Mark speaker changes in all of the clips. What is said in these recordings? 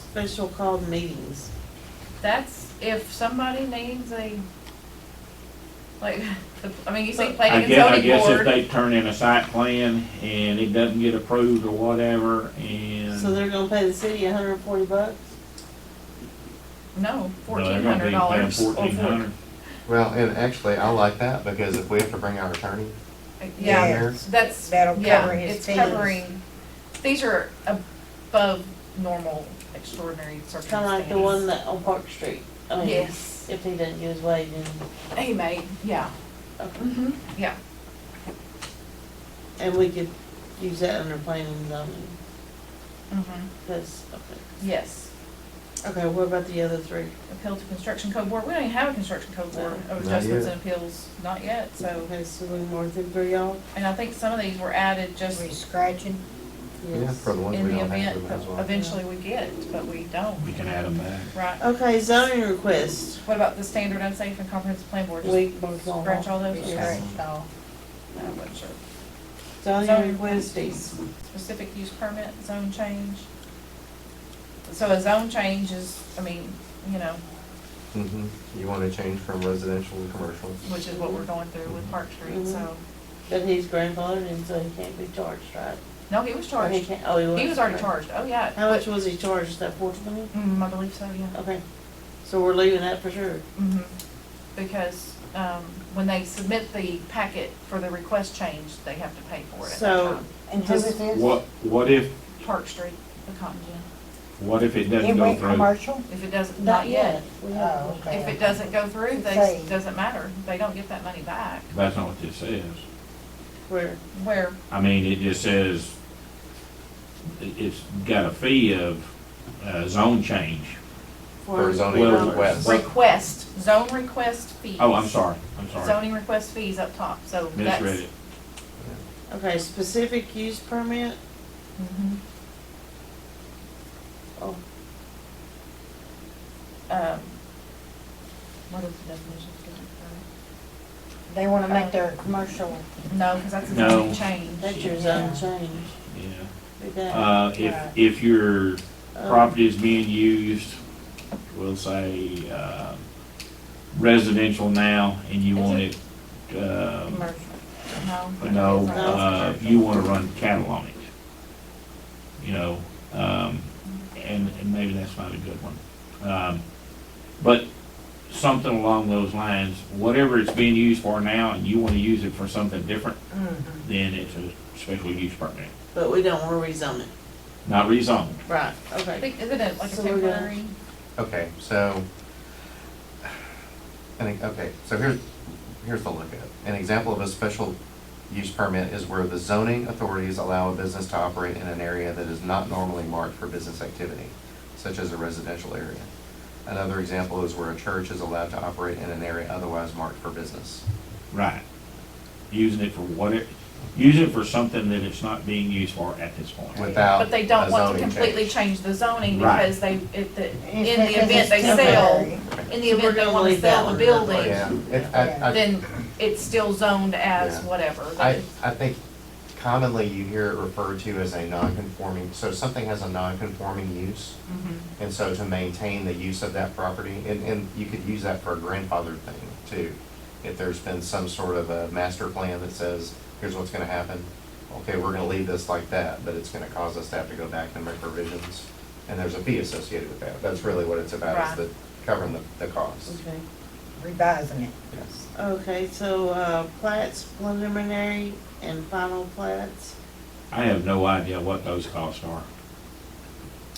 Speaker 1: special called meetings.
Speaker 2: That's if somebody needs a, like, the- I mean, you see
Speaker 3: I
Speaker 2: planning and
Speaker 3: guess, I
Speaker 2: zoning
Speaker 3: guess if
Speaker 2: board,
Speaker 3: they turn in a site plan and it doesn't get approved or whatever, and.
Speaker 1: So they're gonna pay the city a hundred and forty bucks?
Speaker 2: no,
Speaker 3: No,
Speaker 2: fourteen
Speaker 3: they're gonna be
Speaker 2: hundred
Speaker 3: paying
Speaker 2: dollars.
Speaker 3: $1,400.
Speaker 4: Well, and actually, I like that because if we have to bring our attorney
Speaker 2: Yeah,
Speaker 4: here,
Speaker 2: that's,
Speaker 5: That'll
Speaker 2: yeah,
Speaker 5: cover his
Speaker 2: it's
Speaker 5: fees.
Speaker 2: covering, these are above normal extraordinary circumstances.
Speaker 1: Kinda like the one that on Park Street. I mean,
Speaker 2: Yes,
Speaker 1: If he doesn't get his way, then,
Speaker 2: he made, yeah,
Speaker 1: okay.
Speaker 2: mhm, yeah,
Speaker 1: and we could use that under planning and zoning,
Speaker 2: mhm,
Speaker 1: that's, okay.
Speaker 2: yes.
Speaker 1: Okay, what about the other three?
Speaker 2: appeal to construction code board, we don't even have a construction code board of
Speaker 4: Not
Speaker 2: adjustments
Speaker 4: yet.
Speaker 2: and appeals, not yet, so.
Speaker 1: Okay, so we more than three y'all?
Speaker 2: And I think some of these were added just
Speaker 5: We scratching,
Speaker 4: yeah, for the ones
Speaker 2: in
Speaker 4: we
Speaker 2: the
Speaker 4: don't have, we
Speaker 2: event
Speaker 4: might
Speaker 2: that
Speaker 4: as well.
Speaker 2: eventually we get, but we don't,
Speaker 3: We can add them back.
Speaker 2: right?
Speaker 1: Okay, zoning request.
Speaker 2: What about the standard unsafe and comprehensive plan board, just
Speaker 1: We, both on.
Speaker 2: scratch all those?
Speaker 1: Yes.
Speaker 2: Okay, so, no, I wasn't sure.
Speaker 1: Zoning
Speaker 2: Zoning
Speaker 1: request
Speaker 2: requests. Specific use permit, zone change. So a zone change is, I mean, you know,
Speaker 4: Mhm. You wanna change from residential to commercial.
Speaker 2: which is what we're going through with Park Street,
Speaker 1: Mhm.
Speaker 2: so,
Speaker 1: But he's grandfathered and so he can't be charged, right?
Speaker 2: no, he was
Speaker 1: Or he
Speaker 2: charged,
Speaker 1: can't, oh, he was.
Speaker 2: he was already
Speaker 1: okay.
Speaker 2: charged, oh, yeah.
Speaker 1: How much was he charged, is that four twenty?
Speaker 2: Mm, I believe so, yeah.
Speaker 1: Okay, so we're leaving that for sure.
Speaker 2: Mhm. Because um, when they submit the packet for the request change, they have to pay for it at that
Speaker 1: So-
Speaker 2: time.
Speaker 5: and who is this?
Speaker 3: What, what if,
Speaker 2: Park Street, the cotton gin.
Speaker 3: what if it
Speaker 5: It
Speaker 3: doesn't go
Speaker 5: went
Speaker 3: through?
Speaker 5: commercial?
Speaker 2: If it doesn't, not yet.
Speaker 1: We
Speaker 5: Oh,
Speaker 1: haven't.
Speaker 5: okay.
Speaker 2: If it doesn't go through, they,
Speaker 5: Say.
Speaker 2: s- doesn't matter. They don't get that money back.
Speaker 3: That's not what this says.
Speaker 1: Where,
Speaker 2: Where,
Speaker 3: I mean, it just says, it- it's got a fee of, uh, zone change.
Speaker 4: For
Speaker 1: where,
Speaker 4: zoning
Speaker 3: Well-
Speaker 4: request.
Speaker 2: request, zone request fees.
Speaker 3: Oh, I'm sorry, I'm sorry,
Speaker 2: Zoning request fees up top, so that's.
Speaker 3: misread it.
Speaker 1: okay, specific use permit,
Speaker 2: Mhm.
Speaker 1: oh,
Speaker 2: Um, What is the definition of
Speaker 5: They wanna make their commercial,
Speaker 2: zoning? No, because that's a
Speaker 3: No.
Speaker 2: zoning change.
Speaker 1: that's your zone
Speaker 5: Yeah.
Speaker 1: change,
Speaker 3: Yeah,
Speaker 1: Read that.
Speaker 3: uh, if,
Speaker 5: Right.
Speaker 3: if your
Speaker 1: Um,
Speaker 3: property is being used, we'll say, uh, residential now, and you
Speaker 2: Is
Speaker 3: want it, um,
Speaker 5: commercial.
Speaker 2: No.
Speaker 3: no,
Speaker 2: it's not.
Speaker 3: uh, you wanna run cattle on it. You know, um, and, and maybe that's not a good one. Um, but something along those lines, whatever it's being used for now, and you wanna use it for something different,
Speaker 5: Mhm.
Speaker 3: then it's a special use permit,
Speaker 1: But we don't wanna rezone it,
Speaker 3: not rezoned.
Speaker 1: right,
Speaker 2: I
Speaker 1: okay,
Speaker 2: think, isn't it like a
Speaker 1: So we're gonna-
Speaker 2: temporary?
Speaker 4: Okay, so, I think, okay, so here's, here's the look at it. An example of a special use permit is where the zoning authorities allow a business to operate in an area that is not normally marked for business activity, such as a residential area. Another example is where a church is allowed to operate in an area otherwise marked for business.
Speaker 3: Right. Using it for what it, using it for something that it's not being used for at this point.
Speaker 4: Without
Speaker 2: But they don't
Speaker 4: a
Speaker 2: want to
Speaker 4: zoning
Speaker 2: completely
Speaker 4: change.
Speaker 2: change the zoning
Speaker 3: Right.
Speaker 2: because they, if the, in
Speaker 5: It's because
Speaker 2: the event
Speaker 5: it's
Speaker 2: they sell,
Speaker 5: temporary.
Speaker 2: in the
Speaker 1: So we're
Speaker 2: event they
Speaker 1: gonna
Speaker 2: wanna
Speaker 1: leave that
Speaker 2: sell
Speaker 1: one
Speaker 2: the
Speaker 1: in place.
Speaker 2: building,
Speaker 4: Yeah, it, I, I.
Speaker 2: then it's still zoned as
Speaker 4: Yeah.
Speaker 2: whatever.
Speaker 4: I, I think commonly you hear it referred to as a non-conforming, so something has a non-conforming use.
Speaker 2: Mhm.
Speaker 4: And so to maintain the use of that property, and, and you could use that for a grandfather thing too. If there's been some sort of a master plan that says, here's what's gonna happen, okay, we're gonna leave this like that, but it's gonna cause us to have to go back and make provisions. And there's a fee associated with that, that's really what it's about,
Speaker 2: Right.
Speaker 4: is the, covering the, the cost.
Speaker 1: okay.
Speaker 5: Revising it.
Speaker 4: Yes.
Speaker 1: Okay, so, uh, plats preliminary and final plats,
Speaker 3: I have no idea what those costs are.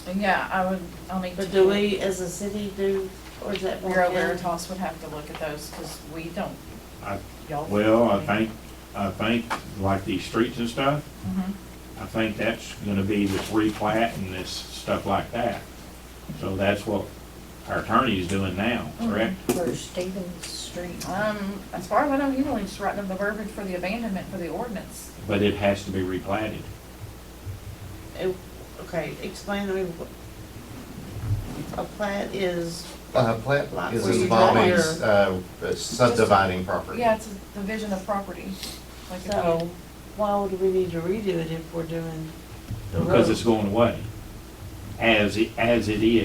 Speaker 2: And Yeah, I would, I'll need to.
Speaker 1: but do we as a city do, or is that? one
Speaker 2: Bureau
Speaker 1: county?
Speaker 2: Veritas would have to look at those because we don't,
Speaker 3: I,
Speaker 2: y'all.
Speaker 3: well, I think, I think like these streets and stuff,
Speaker 2: Mhm.
Speaker 3: I think that's gonna be this replat and this stuff like that. So that's what our attorney is doing now, correct?
Speaker 5: For Stevens Street.
Speaker 2: Um, as far as I know, you only just writing up the verbiage for the abandonment for the ordinance.
Speaker 3: But it has to be replatted.
Speaker 1: It- Okay, explain to me what, a plat is,
Speaker 4: Uh, plat
Speaker 1: Lots
Speaker 4: is
Speaker 1: where you
Speaker 4: involving,
Speaker 1: draw your-
Speaker 4: uh, subdividing property.
Speaker 2: Yeah, it's a division of property. Like if you-
Speaker 1: so why would we need to redo it if we're doing?
Speaker 3: Because it's going away. As it, as it is.